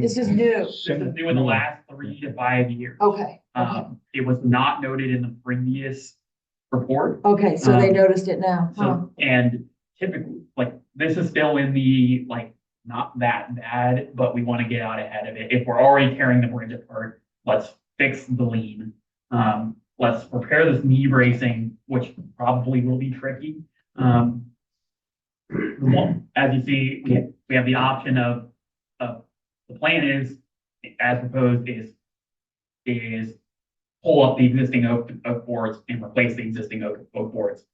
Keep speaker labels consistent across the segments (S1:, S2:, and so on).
S1: This is new.
S2: This is new in the last three to five years.
S1: Okay,
S3: Uh-huh.
S1: okay,
S2: Um, it was not noted in the previous report.
S1: okay, so they
S3: Uh-huh.
S2: um,
S1: noticed it now, huh?
S2: So, and typically, like, this is still in the, like, not that bad, but we want to get out ahead of it. If we're already tearing the bridge apart, let's fix the lean. Um, let's repair this knee bracing, which probably will be tricky. Um, the one- as you see, we, we have the option of, of, the plan is, as proposed, is, is pull up the existing oak, oak boards and replace the existing oak, oak boards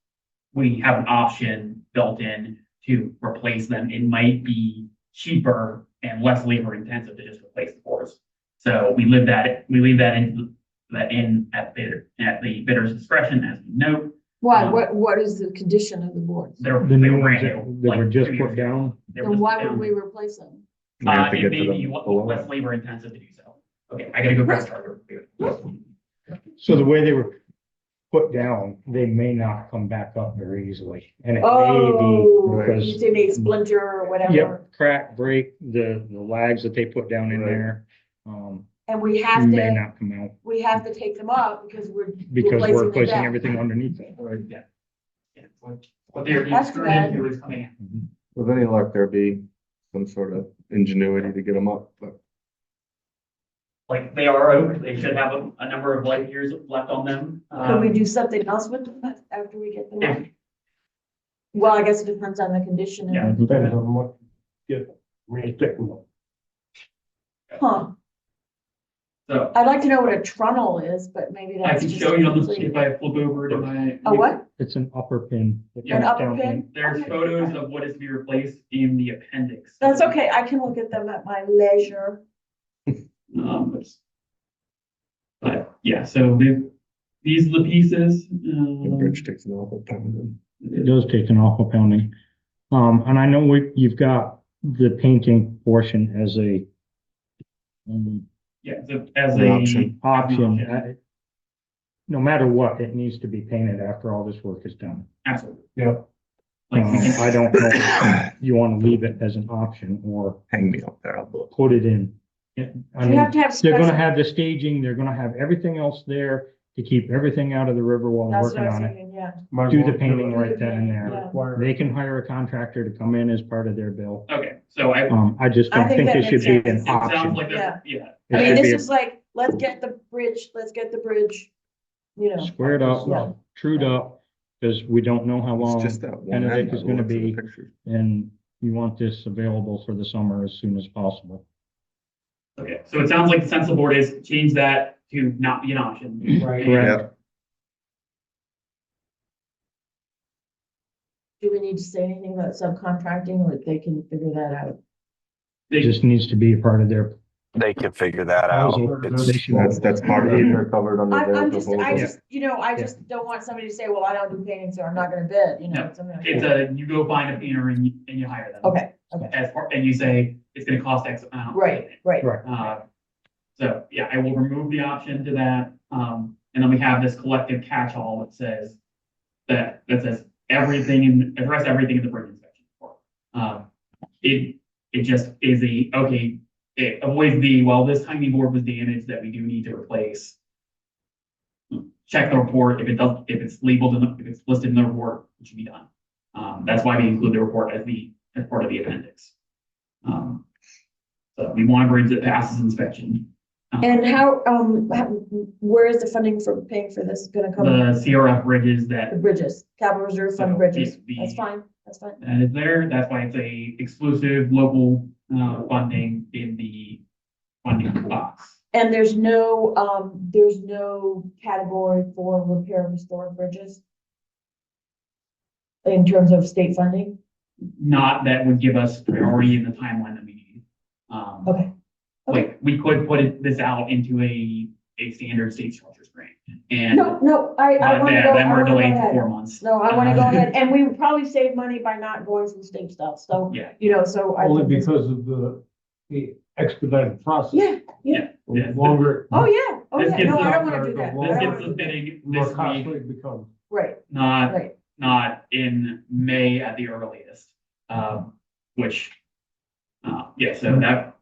S2: we have an option built in to replace them. It might be cheaper and less labor intensive to just replace the boards. So we live that, we leave that in, that in at bidder, at the bidder's discretion as we note.
S1: Why,
S3: uh-huh.
S2: um,
S1: what, what is the condition of the boards?
S2: They're,
S3: The
S2: they
S3: new
S2: were brand
S3: ones that
S2: new.
S3: that
S2: like,
S3: were just
S2: two years
S3: put
S2: ago.
S3: down.
S2: They were
S1: And why
S2: just
S1: would
S2: down.
S1: we replace them?
S4: We
S2: Uh,
S4: have to
S2: it
S4: get
S2: may
S4: to
S2: be
S4: them below
S2: less
S4: it.
S2: labor intensive to do so. Okay, I gotta go grab a charger.
S3: So the way they were put down, they may not come back up very easily. And it
S1: Oh,
S3: may be
S1: you
S3: because,
S1: say maybe splinter or whatever,
S3: yep, crack, break, the, the lags that they put down in there, um,
S1: and we have
S3: may
S1: to,
S3: not come out
S1: we have to take them up because we're.
S3: because
S1: Replacing
S3: we're
S1: the
S3: replacing
S1: deck.
S3: everything underneath it.
S2: Yeah. Yeah, what- What they're being
S1: That's
S2: screwed
S1: bad.
S2: into is coming in.
S4: With any luck, there'd be some sort of ingenuity to get them up, but
S2: Like, they are open. They should have a, a number of light years left on them.
S1: Can we
S2: Um,
S1: do something else with them after we get them?
S2: if-
S1: up? Well, I guess it depends on the condition
S2: Yeah.
S1: and,
S5: Depends on what, yeah, really thick one.
S1: huh,
S2: So
S1: I'd like to know what a trunnel is, but maybe
S2: I
S1: that's Oh,
S2: can
S1: just.
S2: show you on the,
S1: complete-
S2: if I flip over to my.
S1: A what?
S3: It's an upper pin. that
S2: Yeah.
S1: An
S3: comes
S1: upper
S3: down
S1: pin?
S2: There's
S1: Okay.
S2: photos of what is to be replaced in the appendix.
S1: That's okay, I can look at them at my leisure.
S2: Um, but- But, yeah, so the- these are the pieces.
S4: the
S2: um,
S4: bridge takes an awful time.
S3: It does take an awful pounding. Um, and I know we, you've got the painting portion as a um,
S2: Yeah, so as
S4: An
S2: a.
S4: option.
S3: option. I- No matter what, it needs to be painted after all this work is done.
S2: Absolutely.
S5: Yeah.
S2: Like,
S3: Um,
S2: we can-
S3: I don't know if you want to leave it as an option or
S4: Hang me up there, I'll look.
S3: put it in. Yeah, I
S1: You have
S3: mean,
S1: to have.
S3: they're
S1: special-
S3: gonna have the staging, they're gonna have everything else there to keep everything out of the river while they're
S1: That's what
S3: working
S1: I was
S3: on it.
S1: thinking, yeah.
S5: Might as
S3: Do
S5: well
S3: the painting
S5: it.
S3: right then and there.
S5: Require
S3: They can hire a contractor to come in as part of their bill.
S2: Okay, so I.
S3: Um, I just
S1: I
S3: don't
S1: think
S3: think
S1: that
S3: it should
S1: makes
S3: be
S1: sense.
S3: an
S2: It sounds
S3: option.
S2: like that, yeah,
S1: I
S3: It
S1: mean,
S3: should
S1: this
S3: be
S1: is like, let's get the bridge, let's get the bridge, you know.
S3: squared up,
S5: Yeah.
S3: trued up, because we don't know how
S4: It's
S3: long.
S4: just that one.
S3: Benedict
S4: end
S3: is
S4: that
S3: gonna
S4: looks in the
S3: be-
S4: picture.
S3: And you want this available for the summer as soon as possible.
S2: okay, so it sounds like the sensible board is change that to not be an option.
S5: Right.
S3: Correct.
S1: Do we need to say anything about subcontracting or they can figure that out?
S3: It
S2: They-
S3: just needs to be a part of their.
S6: They can figure that out. It's,
S4: That's, that's part of it, they're covered under
S1: I'm,
S4: their
S1: I'm just, I
S4: proposal.
S1: just, you know, I just don't want somebody to say, well, I don't do painting, so I'm not gonna bid, you know,
S2: No,
S1: something like
S2: It's
S1: that.
S2: a, you go find a painter and you, and you hire them.
S1: Okay,
S2: As far, and you say, it's gonna cost X amount.
S1: right, right,
S2: Uh, So, yeah, I will remove the option to that, um, and then we have this collective catch-all that says that, that says everything in, address everything in the bridge inspection report. Um, it, it just is a, okay, it avoids the, well, this tiny board was damaged that we do need to replace. Check the report, if it does, if it's labeled in the, if it's listed in the report, it should be done. Um, that's why we include the report as the, as part of the appendix. Um, so we want a bridge that passes inspection. Um,
S1: And how, um, how- where is the funding for paying for this gonna come?
S2: The CRF bridges
S1: The
S2: that,
S1: bridges, capital reserve fund
S2: Uh, So,
S1: bridges,
S2: the- the-
S1: that's fine, that's fine.
S2: that is uh, there, that's why it's a exclusive local, uh, funding in the funding box.
S1: And there's no, um, there's no category for repair and restore bridges? In terms of state funding?
S2: Not that would give us priority in the timeline that we need. Um,
S1: Okay.
S2: Like, we could put it- this out into a, a standard state structures grant and.
S1: No, no, I, I
S2: but
S1: wanna
S2: then-
S1: go,
S2: Then
S1: I
S2: we're
S1: wanna go
S2: delayed for four
S1: ahead.
S2: months.
S1: No, I wanna go ahead, and we would probably save money by not going through state stuff, so,
S2: Yeah.
S1: you know, so I.
S5: Only
S1: think it's-
S5: because of the, the expedited process.
S1: Yeah,
S2: Yeah.
S5: The Longer.
S1: oh, yeah, oh,
S2: This
S1: yeah,
S2: gets
S1: no, I
S2: us-
S1: don't wanna do that. I don't
S2: This gets
S1: wanna do
S2: the
S1: that.
S2: bidding
S5: the
S2: this
S5: More
S2: week,
S5: costly it becomes.
S1: Right,
S2: not
S1: right,
S2: not in May at the earliest. Um, which, uh, yeah, so that,